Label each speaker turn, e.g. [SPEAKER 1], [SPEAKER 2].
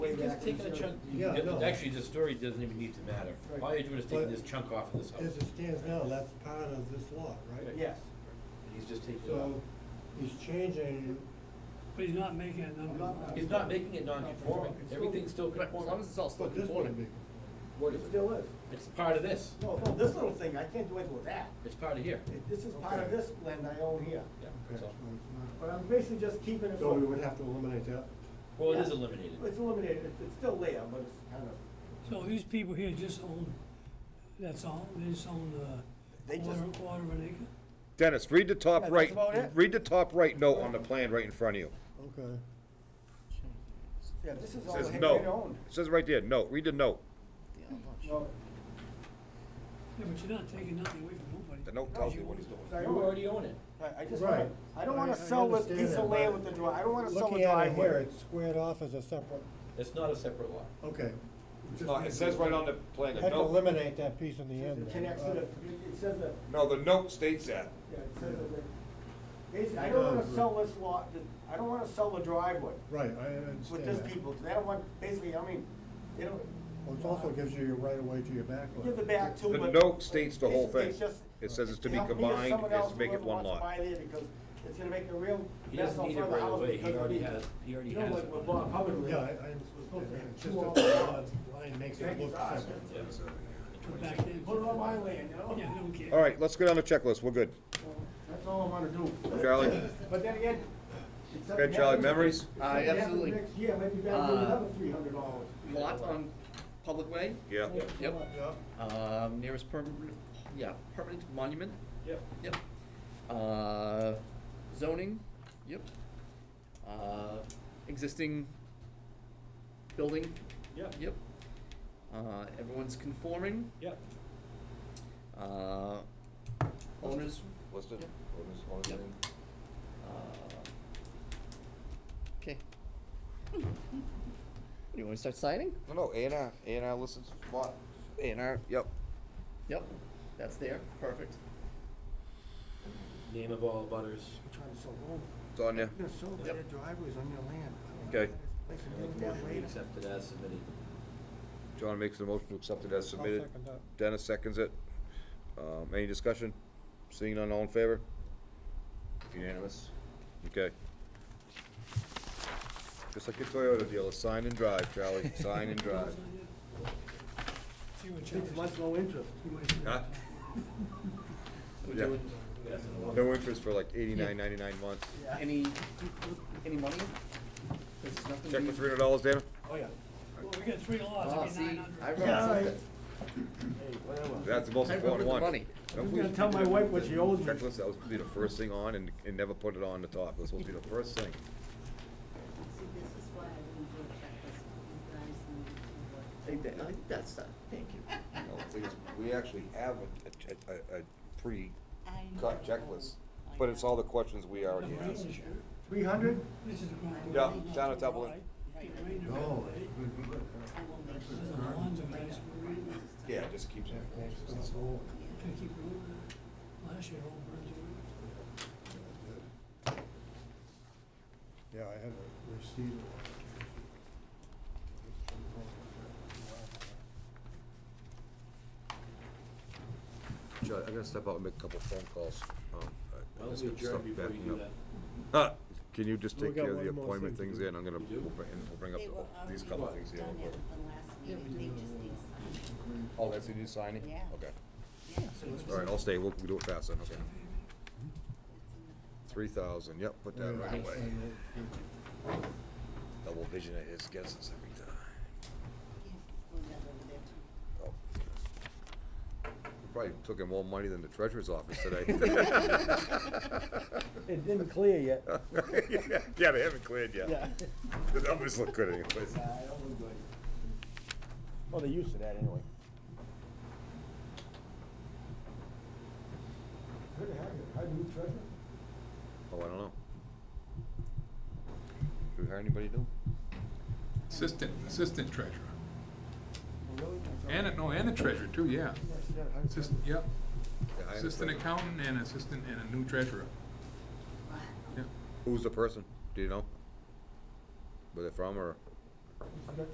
[SPEAKER 1] just taking a chunk,
[SPEAKER 2] Yeah,
[SPEAKER 3] Th-
[SPEAKER 2] no.
[SPEAKER 3] Actually, the story doesn't even need to matter.
[SPEAKER 1] Right.
[SPEAKER 3] All you're doing is taking
[SPEAKER 2] But-
[SPEAKER 3] this chunk off of this house.
[SPEAKER 2] As it stands now, that's part of this lot, right?
[SPEAKER 1] yes.
[SPEAKER 3] He's just taking it off.
[SPEAKER 2] So he's changing,
[SPEAKER 4] But he's not making it
[SPEAKER 1] I'm not-
[SPEAKER 3] He's not making it non-conforming.
[SPEAKER 1] It's still-
[SPEAKER 3] Everything's still
[SPEAKER 5] Right, as long
[SPEAKER 3] conforming.
[SPEAKER 5] as it's all still
[SPEAKER 2] but this wouldn't be.
[SPEAKER 5] conforming.
[SPEAKER 3] What
[SPEAKER 1] It
[SPEAKER 3] is it?
[SPEAKER 1] still is.
[SPEAKER 3] It's part of this.
[SPEAKER 1] No, no, this little thing, I can't do anything with that.
[SPEAKER 3] It's part of here.
[SPEAKER 1] It- This is part of
[SPEAKER 2] Okay.
[SPEAKER 1] this land I own here.
[SPEAKER 3] Yeah,
[SPEAKER 2] Okay,
[SPEAKER 3] that's
[SPEAKER 2] so
[SPEAKER 3] all.
[SPEAKER 2] it's
[SPEAKER 1] But I'm basically just keeping
[SPEAKER 2] not-
[SPEAKER 1] it.
[SPEAKER 2] So we
[SPEAKER 1] from-
[SPEAKER 2] would have to eliminate that.
[SPEAKER 3] Well, it is
[SPEAKER 1] Yeah.
[SPEAKER 3] eliminated.
[SPEAKER 1] It's eliminated, It's- it's still there, but it's kind of.
[SPEAKER 4] So these people here just own, that's all, they just own, uh,
[SPEAKER 1] They just-
[SPEAKER 4] quarter, quarter of an acre?
[SPEAKER 6] Dennis, read the top
[SPEAKER 1] Yeah, that's
[SPEAKER 6] right,
[SPEAKER 1] about it.
[SPEAKER 6] read the top right note on the plan right in front of you.
[SPEAKER 2] Okay.
[SPEAKER 1] Yeah, this is
[SPEAKER 6] It
[SPEAKER 1] all
[SPEAKER 6] says
[SPEAKER 1] Henry
[SPEAKER 6] note.
[SPEAKER 1] owned.
[SPEAKER 6] It says right there, note, read the note.
[SPEAKER 1] No,
[SPEAKER 4] Yeah, but you're not taking nothing away from nobody.
[SPEAKER 6] The note tells you what he's doing.
[SPEAKER 1] I
[SPEAKER 3] You
[SPEAKER 1] own it.
[SPEAKER 3] already own it.
[SPEAKER 1] I, I just
[SPEAKER 2] Right.
[SPEAKER 1] wanna, I don't wanna
[SPEAKER 2] I- I
[SPEAKER 1] sell this
[SPEAKER 2] understand
[SPEAKER 1] piece
[SPEAKER 2] that,
[SPEAKER 1] of land
[SPEAKER 2] but
[SPEAKER 1] with the dri, I don't wanna sell the
[SPEAKER 2] Looking at it here,
[SPEAKER 1] driveway.
[SPEAKER 2] it's squared off as a separate,
[SPEAKER 3] It's not a separate lot.
[SPEAKER 2] okay. Uh,
[SPEAKER 6] No, it says right on the plan, the
[SPEAKER 2] Had to
[SPEAKER 6] note,
[SPEAKER 2] eliminate that piece in the end.
[SPEAKER 1] It connects to the, it says that,
[SPEAKER 6] no, the note states that.
[SPEAKER 1] yeah, it says that, the- basically, I don't wanna sell this lot, th- I don't wanna sell the driveway
[SPEAKER 2] Right, I understand
[SPEAKER 1] with this
[SPEAKER 2] that.
[SPEAKER 1] people, 'cause they don't want, basically, I mean, they don't.
[SPEAKER 2] Well, it also gives you your right of way to your back lot.
[SPEAKER 1] Give the back too,
[SPEAKER 6] The
[SPEAKER 1] but.
[SPEAKER 6] note states the whole
[SPEAKER 1] basically,
[SPEAKER 6] thing.
[SPEAKER 1] it's just-
[SPEAKER 6] It says it's to be
[SPEAKER 1] help me if
[SPEAKER 6] combined,
[SPEAKER 1] someone
[SPEAKER 6] it's
[SPEAKER 1] else,
[SPEAKER 6] make it
[SPEAKER 1] whoever
[SPEAKER 6] one
[SPEAKER 1] wants to
[SPEAKER 6] lot.
[SPEAKER 1] buy there, because it's gonna make a real
[SPEAKER 3] He
[SPEAKER 1] mess
[SPEAKER 3] doesn't
[SPEAKER 1] on
[SPEAKER 3] need it
[SPEAKER 1] front of the
[SPEAKER 3] right
[SPEAKER 1] house
[SPEAKER 3] away.
[SPEAKER 1] because
[SPEAKER 3] He
[SPEAKER 1] of
[SPEAKER 3] already
[SPEAKER 1] the-
[SPEAKER 3] has, he already
[SPEAKER 1] You know,
[SPEAKER 3] has.
[SPEAKER 1] like with Bob Hubbard. lived,
[SPEAKER 2] Yeah, I, I
[SPEAKER 1] Okay.
[SPEAKER 2] understand. It's
[SPEAKER 1] Two
[SPEAKER 2] just that
[SPEAKER 1] all-
[SPEAKER 2] the lot line makes it
[SPEAKER 1] Thank you,
[SPEAKER 2] look
[SPEAKER 1] sir.
[SPEAKER 2] separate.
[SPEAKER 4] Put back in.
[SPEAKER 1] Put it on my land, you know?
[SPEAKER 4] Yeah, I don't care.
[SPEAKER 6] All right, let's go down the checklist, we're good.
[SPEAKER 1] That's all I wanna do.
[SPEAKER 6] Charlie,
[SPEAKER 1] But then again. it's up
[SPEAKER 6] okay,
[SPEAKER 1] to
[SPEAKER 6] Charlie,
[SPEAKER 1] him.
[SPEAKER 6] memories?
[SPEAKER 1] It's
[SPEAKER 5] Uh,
[SPEAKER 1] up to him
[SPEAKER 5] absolutely.
[SPEAKER 1] Next year, maybe back to
[SPEAKER 5] Uh,
[SPEAKER 1] another three hundred dollars.
[SPEAKER 5] Lot on public way,
[SPEAKER 6] Yeah.
[SPEAKER 5] yep,
[SPEAKER 2] Yeah.
[SPEAKER 5] um, nearest permanent, yeah, permanent monument,
[SPEAKER 3] Yep.
[SPEAKER 5] yep. Uh, zoning, yep. Uh, existing building,
[SPEAKER 3] Yep,
[SPEAKER 5] yep. Uh, everyone's conforming,
[SPEAKER 3] yep.
[SPEAKER 5] uh, owners,
[SPEAKER 6] Listed,
[SPEAKER 5] Yep.
[SPEAKER 6] owners, owners,
[SPEAKER 5] Yep.
[SPEAKER 6] and-
[SPEAKER 5] Okay. You wanna start signing?
[SPEAKER 6] No, no, A and R, A and R listed lot, A and R, yep.
[SPEAKER 5] Yep, that's there, perfect.
[SPEAKER 3] Name of all butters.
[SPEAKER 1] Trying to sell home.
[SPEAKER 6] It's on there.
[SPEAKER 1] You're so
[SPEAKER 5] Yep.
[SPEAKER 1] bad driveways on your land.
[SPEAKER 6] Okay.
[SPEAKER 1] Place
[SPEAKER 3] I
[SPEAKER 1] and
[SPEAKER 3] make
[SPEAKER 1] make
[SPEAKER 3] a
[SPEAKER 1] that
[SPEAKER 3] motion we
[SPEAKER 1] later.
[SPEAKER 3] accept it as submitted.
[SPEAKER 6] John makes the motion to accept it as
[SPEAKER 2] I'll
[SPEAKER 6] submitted.
[SPEAKER 2] second that.
[SPEAKER 6] Dennis seconds it. Um, any discussion? Seeing none, all in favor? Unanimous. Okay. Just like your Toyota deal, it's sign and drive, Charlie, sign and drive.
[SPEAKER 4] See what
[SPEAKER 1] Six
[SPEAKER 4] charges.
[SPEAKER 1] months, no interest.
[SPEAKER 4] You might do
[SPEAKER 6] Huh?
[SPEAKER 4] that.
[SPEAKER 5] We're
[SPEAKER 6] Yeah.
[SPEAKER 5] doing
[SPEAKER 3] Yes, and all.
[SPEAKER 6] No interest for like eighty-nine, ninety-nine months.
[SPEAKER 1] Yeah.
[SPEAKER 5] any, any money? This is nothing.
[SPEAKER 6] Check
[SPEAKER 5] we-
[SPEAKER 6] for three hundred dollars, Dana?
[SPEAKER 1] Oh, yeah.
[SPEAKER 4] Well, we got three laws,
[SPEAKER 5] Ah,
[SPEAKER 4] it'd be
[SPEAKER 5] see,
[SPEAKER 4] nine hundred.
[SPEAKER 5] I wrote
[SPEAKER 1] Yeah,
[SPEAKER 5] something.
[SPEAKER 1] right. Hey, whatever.
[SPEAKER 6] That's the most
[SPEAKER 5] I remember
[SPEAKER 6] important
[SPEAKER 5] the
[SPEAKER 6] one.
[SPEAKER 5] money.
[SPEAKER 1] I'm just gonna tell my wife what she owes me.
[SPEAKER 6] Checklist, that was gonna be the first thing on and, and never put it on the top. This will be the first thing.
[SPEAKER 7] See, this is why I didn't do a checklist, you guys needed to work.
[SPEAKER 5] Take that, I think that's, that. thank you.
[SPEAKER 6] No, the thing is, We actually have a, a, a, a pre-cut
[SPEAKER 7] I know.
[SPEAKER 6] checklist,
[SPEAKER 7] I
[SPEAKER 6] but it's
[SPEAKER 7] know.
[SPEAKER 6] all the questions we already
[SPEAKER 4] Number eight
[SPEAKER 6] asked.
[SPEAKER 4] is your-
[SPEAKER 1] Three hundred?
[SPEAKER 4] This is the ground.
[SPEAKER 6] Yeah,
[SPEAKER 4] door.
[SPEAKER 6] down at Dublin.
[SPEAKER 4] Get rain to
[SPEAKER 2] No.
[SPEAKER 4] rain.
[SPEAKER 7] I will make
[SPEAKER 4] This is
[SPEAKER 7] sure.
[SPEAKER 4] the lawns of nice green.
[SPEAKER 6] Yeah, it just keeps it.
[SPEAKER 2] It's not old.
[SPEAKER 4] Gotta keep moving. Last year, all burned away.
[SPEAKER 2] Yeah, I had a receipt.
[SPEAKER 6] Joe, I'm gonna step out and make a couple phone calls. Um, I- I
[SPEAKER 3] Why don't
[SPEAKER 6] just
[SPEAKER 3] we
[SPEAKER 6] got
[SPEAKER 3] adjourn
[SPEAKER 6] stuff
[SPEAKER 3] before you
[SPEAKER 6] backing
[SPEAKER 3] do
[SPEAKER 6] up.
[SPEAKER 3] that?
[SPEAKER 6] Ah, Can you just
[SPEAKER 2] We
[SPEAKER 6] take
[SPEAKER 2] got
[SPEAKER 6] care of
[SPEAKER 2] one
[SPEAKER 6] the
[SPEAKER 2] more
[SPEAKER 6] appointment
[SPEAKER 2] thing to
[SPEAKER 6] things
[SPEAKER 2] do.
[SPEAKER 6] in? I'm gonna,
[SPEAKER 3] You do?
[SPEAKER 6] we'll bring- and we'll bring up
[SPEAKER 7] They were
[SPEAKER 6] the-
[SPEAKER 7] already
[SPEAKER 6] these couple
[SPEAKER 7] done
[SPEAKER 6] things
[SPEAKER 7] at
[SPEAKER 6] here. real quick.
[SPEAKER 7] the last meeting, they just need signed.
[SPEAKER 6] Oh, that's you signing?
[SPEAKER 7] Yeah.
[SPEAKER 6] Okay.
[SPEAKER 7] Yeah. Mm-hmm.
[SPEAKER 6] All right, I'll stay. We'll we'll do it fast then, okay.
[SPEAKER 7] It's in the-
[SPEAKER 6] Three thousand, yep, put that right away. Double vision of his guesses every time.
[SPEAKER 7] yeah, we'll get over there
[SPEAKER 6] Oh,
[SPEAKER 7] too.
[SPEAKER 6] okay. Probably took him more money than the treasurer's office today.
[SPEAKER 1] It didn't clear yet.
[SPEAKER 6] Yeah, they haven't cleared yet. The numbers look good anyways.
[SPEAKER 1] Well, they're used to that anyway. Good to have you. How do you treasure?
[SPEAKER 6] Oh, I don't know. Do we hire anybody new?
[SPEAKER 8] Assistant, assistant treasurer.
[SPEAKER 1] Really?
[SPEAKER 8] And, a- no, and a treasurer too, yeah. Assistant, yep.
[SPEAKER 6] Yeah, I understand.
[SPEAKER 8] Assistant accountant and assistant and a new treasurer. Yeah.
[SPEAKER 6] Who's the person? Do you know? Where they're from or?